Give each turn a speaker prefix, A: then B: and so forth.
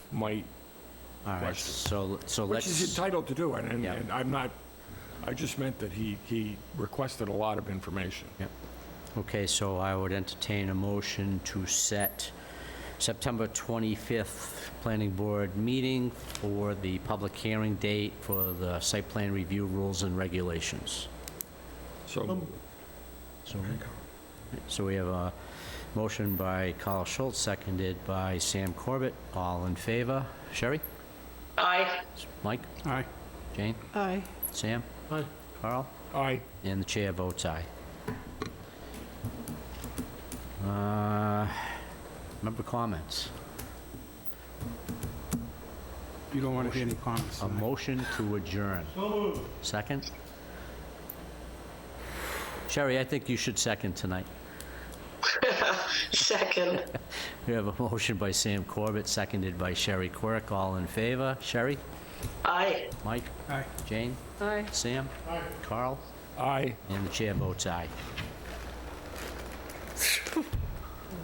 A: might
B: All right,
A: question.
B: so, so
A: Which
B: let's...
A: he's entitled to do, and- and,
B: Yeah.
A: and I'm not, I just meant that he, he requested a lot of information.
B: Okay, so I would entertain a motion to set September 25th Planning Board meeting for the public hearing date for the site plan review rules and regulations.
A: So,
B: So so we have a motion by Carl Schultz, seconded by Sam Corbett. All in favor? Sherry?
C: Aye.
B: Mike?
D: Aye.
B: Jane?
C: Aye.
B: Sam? Aye. Carl?
A: I,
B: And the chair votes aye. Uh, Member comments?
D: You don't want to hear any comments
B: A
D: tonight.
B: motion to adjourn. Second? Sherry, I think you should second tonight.
C: Second.
B: We have a motion by Sam Corbett, seconded by Sherry Quirk. All in favor? Sherry?
C: Aye.
B: Mike?
D: Aye.
B: Jane?
C: Aye.
B: Sam? Carl?
A: I.
B: And the chair votes aye.